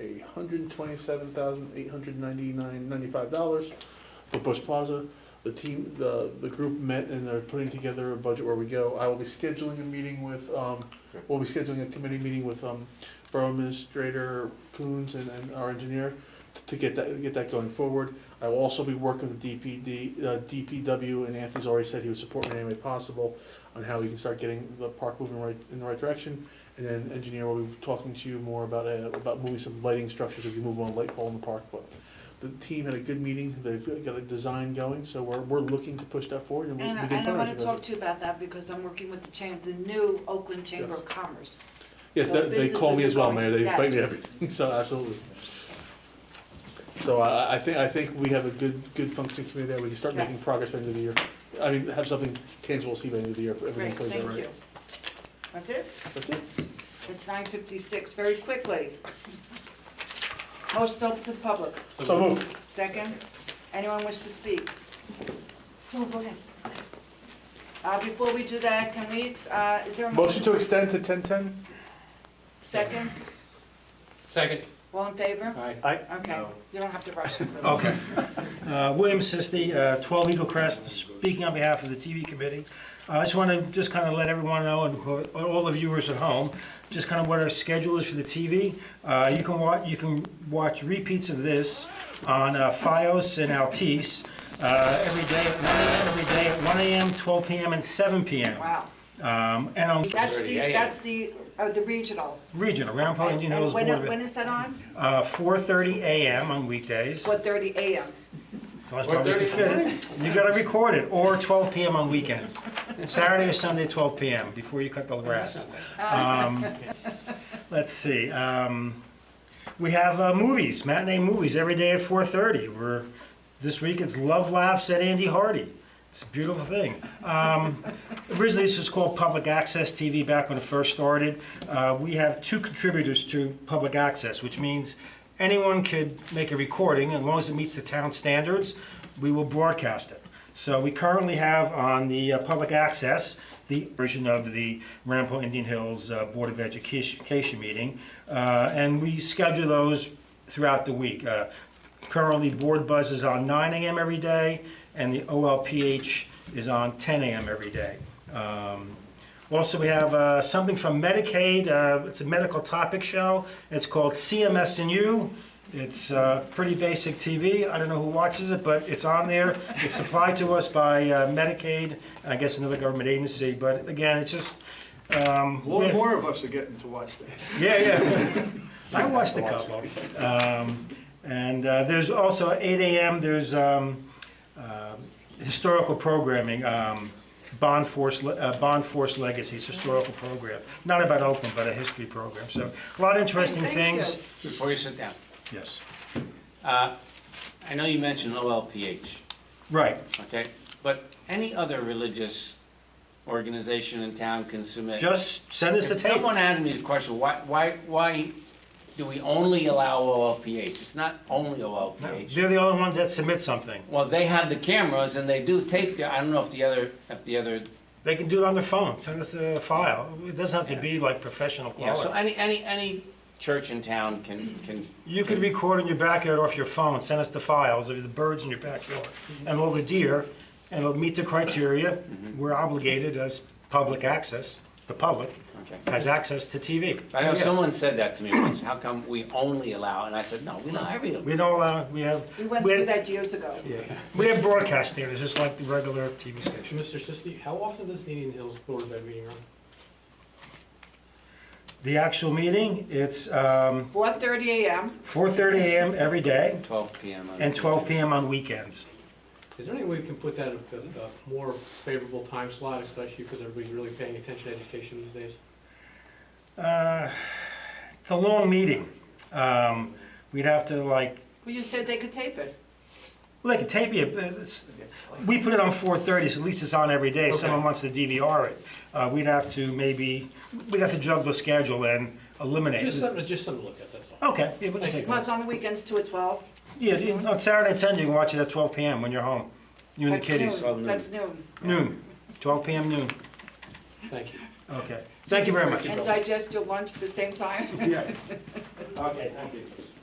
a hundred and twenty-seven thousand, eight hundred ninety-nine, ninety-five dollars for Bush Plaza. The team, the, the group met and they're putting together a budget where we go. I will be scheduling a meeting with, um, we'll be scheduling a committee meeting with, um, Borough Administrator Coons and, and our engineer to get that, get that going forward. I will also be working with DPD, uh, DPW, and Anthony's already said he would support me in any way possible on how we can start getting the park moving right, in the right direction. And then engineer will be talking to you more about, uh, about moving some lighting structures if you move one light pole in the park. But the team had a good meeting, they've got a design going, so we're, we're looking to push that forward and we we And, I- can. and I fundraise wanna about it. talk to you about that because I'm working with the chamber, the new Oakland Chamber Yes. of Commerce. Yes, So they, they call me businesses as well, are Mayor, going- they invite me to yes. everything, so absolutely. So I, I- I think, I think we have a good, good functioning committee there, we can start Yes. making progress by the end of the year. I mean, have something tangible to see by the end of the year if everything Great, plays out thank right. you. That's it? That's it. It's nine fifty-six, very quickly. Most open to the public. So moved. Second, anyone wish to speak? No, go ahead. Uh, before we do that, can we, uh, is there a Motion motion? to extend to ten-ten? Second, Second. all in favor? Aye. Okay, you don't have to rush. Okay. Uh, William Sisti, uh, 12 Eagle Crest, speaking on behalf of the TV committee. Uh, I just want to just kind of let everyone know, and who- all the viewers at home, just kind of what our schedule is for the TV. Uh, You can watch, you can watch repeats of this on uh, FiOS and Altice uh, every day at 1 a.m., every day at 1 a.m., 12 p.m., and 7 p.m. Wow, Um, And on that's the, 30 a.m. that's the, uh, the regional. regional, Round Pond And- Indian Hills And Board when, of when Ed. is that on? Uh, 4:30 a.m. on weekdays. Four thirty AM. So That's probably 4:30 you fit it. You gotta record it, or 12 PM on weekends. Saturday or Sunday, 12 PM, before you cut the grass. Um, Let's see, um, we have uh, movies, matinee movies, every day at 4:30. We're, this week it's Love Laughs at Andy Hardy. It's a beautiful thing. Um, Originally, this was called Public Access TV back when it first started. Uh, We have two contributors to Public Access, which means anyone could make a recording, as long as it meets the town standards, we will broadcast it. So we currently have on the uh, Public Access, the version of the Rampo Indian Hills uh, Board of Education Education meeting, uh, and we schedule those throughout the week. Uh, Currently, Board Buzz is on 9 AM every day, and the OLPH is on 10 AM every day. Um, Also, we have uh, something from Medicaid, uh, it's a medical topic show, it's called CMS and You. It's uh, pretty basic TV, I don't know who watches it, but it's on there. It's supplied to us by uh, Medicaid, and I guess another government agency, but again, it's just. um, More, we're- more of us are getting to watch that. yeah, yeah. I watched a couple. Um, and uh, there's also at 8 a.m. There's um, uh, historical programming. Um, Bond Force, Le- uh, Bond Force Legacy. It's a historical program, not about Oakland, but a history program. So a lot of interesting Thank things. Before you sit down, Yes. uh, I know you mentioned OLPH, Right. okay? But any other religious organization in town can submit. Just send us the If tape. someone had me the question, why, why, why do we only allow OLPH? It's not only No, OLPH. They're the only ones that submit something. Well, they have the cameras and they do tape, the- I don't know if the other, if the other, They can do it on their phone. Send us a file. It doesn't have to be like professional yeah, quality. so any, any, any church in town can, can. You could record in your backyard off your phone, send us the files of the birds in your backyard and all the deer, and it'll meet the criteria. Mm-hmm. We're obligated as public access, the public Okay. has access to TV. I know Yes. someone said that to me once, how come we only allow, and I said, no, we allow everything. We don't allow, we have, We went we through have, that years ago. we have broadcast standards, just like the regular TV station. Mr. Sisti, how often does the Indian Hills Board of Ed meeting run? The actual meeting, it's um, Four thirty AM, 4:30 AM every day 12 PM. on- and 12 PM on weekends. Is there any way we can put that at a a more favorable time slot, especially because everybody's really paying attention to education these days? Uh, It's a long meeting. Um, We'd have to like well, you said they could tape it. Well, they could tape you, but it's- we put it on four thirty, so at least it's on every day, If someone wants to DVR it. Uh, we'd have to maybe, we'd have to juggle the schedule and eliminate. Just it. something, just something to look at, that's all. Okay, yeah, we can take Well, that. it's on the weekends two at twelve. Yeah, you- on Saturday and Sunday, you can watch it at twelve PM when you're home, you and the That's kiddies. noon. That's noon. Noon, twelve PM noon. Thank you. Okay, thank you very much. And digest your lunch at the same time? Yeah. Okay, thank you.